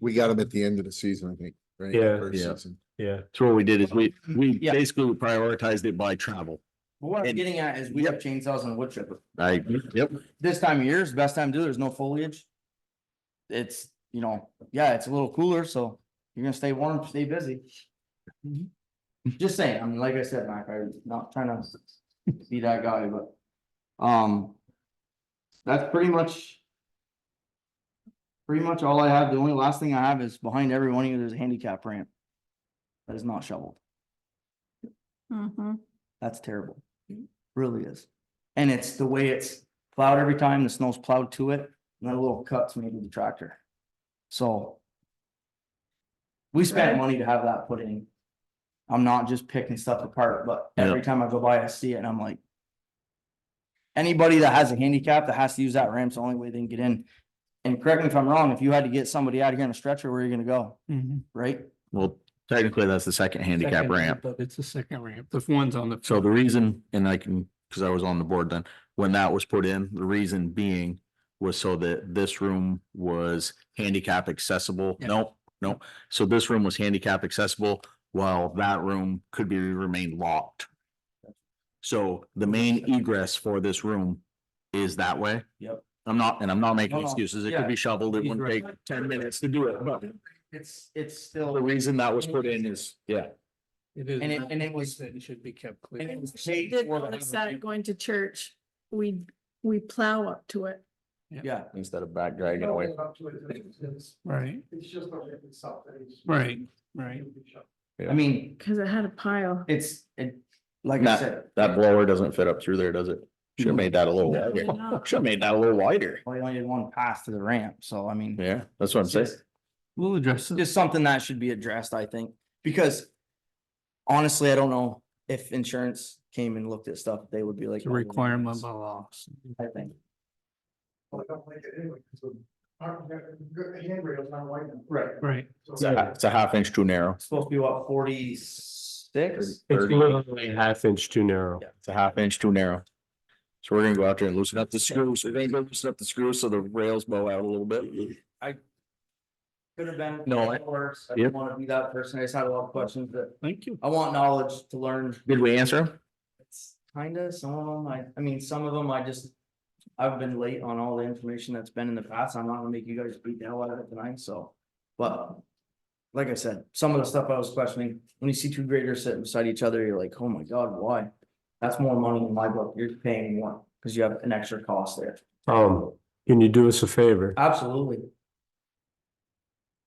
we got them at the end of the season, I think, right? Yeah. First Yeah. season. Yeah, So what we did is we, Mm-hmm. we Yeah. basically prioritized it by travel. But What I'm And- getting at is we have chainsaws and wood chipper. I, Mm-hmm. yep, This time of year is the best time to do, it. there's no foliage. It's, you know, yeah, it's a little cooler, so you're gonna stay warm, stay busy. Just saying, I mean, like I said, Mac, I'm not trying to be that guy, but, um. That's pretty much. Pretty much all I have. The only last thing I have is behind every one of you, there's a handicap ramp. That is not shoveled. Mhm. That's terrible. Really is. And it's the way it's plowed every time, the snow's plowed to it, and that little cuts made with the tractor. So. We spent Right. money to have that put in. I'm not just picking stuff apart, but Yeah. every time I go by, I see it and I'm like. Anybody that has a handicap that has to use that ramp's the only way they can get in. And correct me if I'm wrong, if you had to get somebody out of here in a stretcher, where are you gonna go, Mm-hmm. right? well, technically that's the second handicap Second ramp. But it's the second ramp. The one's on the. So the reason, and I can, because I was on the board then, when that was put in, the reason being was so that this room was handicap accessible. Yeah. Nope, nope. So this room was handicap accessible while that room could be remained locked. So the main egress for this room is that way. Yep. I'm not, and I'm not making No, no, excuses. It yeah. could be shoveled. It He's wouldn't take right. ten minutes to do it, but It's, it's the still, reason that was put in is, yeah. It is. And it- not- and it was- That it should be kept clear. and it was We paid Did for the notice that ramp. going to church, we, we plow up to it. yeah. Instead of back dragging Oh. away. Right. It's just the ramp itself. Right, right. I mean, Cause it had a pile. it's, it, like I Not- said, That blower doesn't fit up through there, does it? Should have made that a little No, it did wider. not. Should have made that a little wider. well, you only did one pass to the ramp, so I mean. Yeah, that's what I'm saying. We'll address it. Just something that should be addressed, I think, because honestly, I don't know if insurance came and looked at stuff, they would be like. "Oh, It's a requirement by law. I think, Well, I don't like it anyway, because the handrail's not wide enough. Right. Right. It's a, it's a half inch too narrow. it's supposed to be what, forty-six? Thirty. literally a half inch too narrow. It's a half inch too narrow. So we're gonna go out there and loosen up the screws. We're gonna go loosen up the screws so the rails bow out a little bit. Could have been. No, I- Worse, I Yep. didn't wanna be that person, I just had a lot of questions that, Thank you. I want knowledge to learn. Did we answer 'em? It's Kinda, some of them, I, I mean, some of them, I just, I've been late on all the information that's been in the past, I'm not gonna make you guys beat the hell out of it tonight, so. But, like I said, some of the stuff I was questioning, when you see two graders sitting beside each other, you're like, oh my god, why? That's more money in my book, you're paying more, cause you have an extra cost there. Um, can you do us a favor? Absolutely,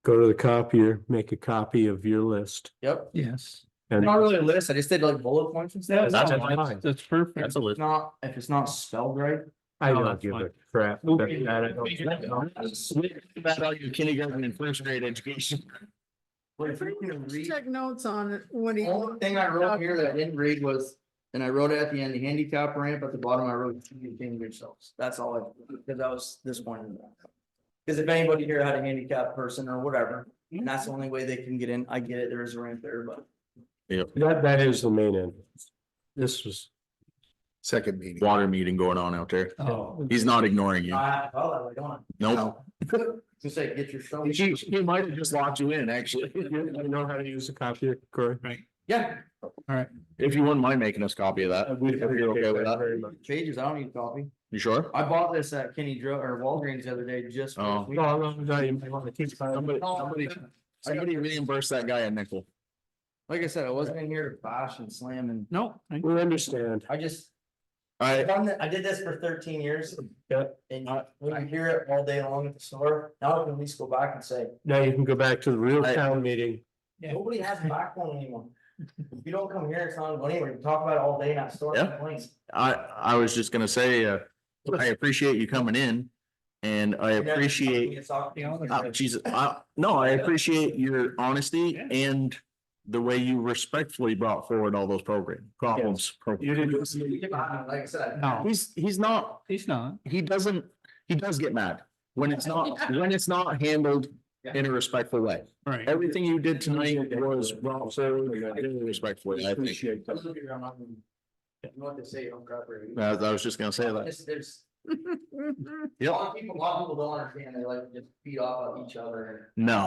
Go to the copier, make a copy of your list. yep, Yes. and not really a list, I just did like bullet points and stuff. That's That's- fine. That's perfect. That's a If list. Not, if it's not spelled right, I No, don't that's give a fine. crap. We'll that- figure that I it out. don't- Figure it out. About all your kindergarten and first grade education. but if you can read. Check notes on it, what do The only you? thing I wrote here that I didn't read was, and I wrote it at the end, the handicap ramp at the bottom, I wrote, you can yourselves. That's all I, because I was disappointed. in that. Because if anybody here had a handicapped person or whatever, and that's the only way they can get in, I get it, there is a ramp there, but. That, that is the main end. This was, Second meeting. Water meeting going on out there. Oh, He's not ignoring you. I, oh, I don't want Nope. to say, get your shovel. He, he might have just locked you in, actually. you you know how to use a copier, Corey? Yeah, If you wouldn't mind making us a copy of that. if you're Uh, okay with that. Very much. pages, I don't need a copy. You sure? I bought this at Kenny Dro, or Walgreens the other day, just. for- Oh. No, no, no, you might want to keep. Somebody, somebody, somebody reimburse that guy a nickel. Like I said, I wasn't in here to bash and slam and, no. thank you. We understand. I just, All I right, done that, I did this for thirteen years. Yeah. And I, I hear it all day long at the store, now I can at least go back and say, Now you can go back to the real Right. town meeting. Yeah. nobody has backbone anymore. If you don't come here, it's not going anywhere, you talk about it all day in that store. Yeah. complaints. I, I was just gonna say, uh, I appreciate you coming in and I And then appreciate, it's off the other oh, side. Jesus, I, no, I appreciate your honesty Yeah. and the way you respectfully brought forward all those program problems. You didn't. Uh, Like I said. No, He's, he's not, he's not. he doesn't, he does get mad when it's not, when it's not handled in a respectful way. Right. Everything you did tonight was brought forward really respectfully, I think. I was looking around, I'm like, You know what they say, you don't grab her. I I was just gonna say that. There's- There's, a Yep. lot of people, a lot of people don't understand, they like to just beat off of each other and. No.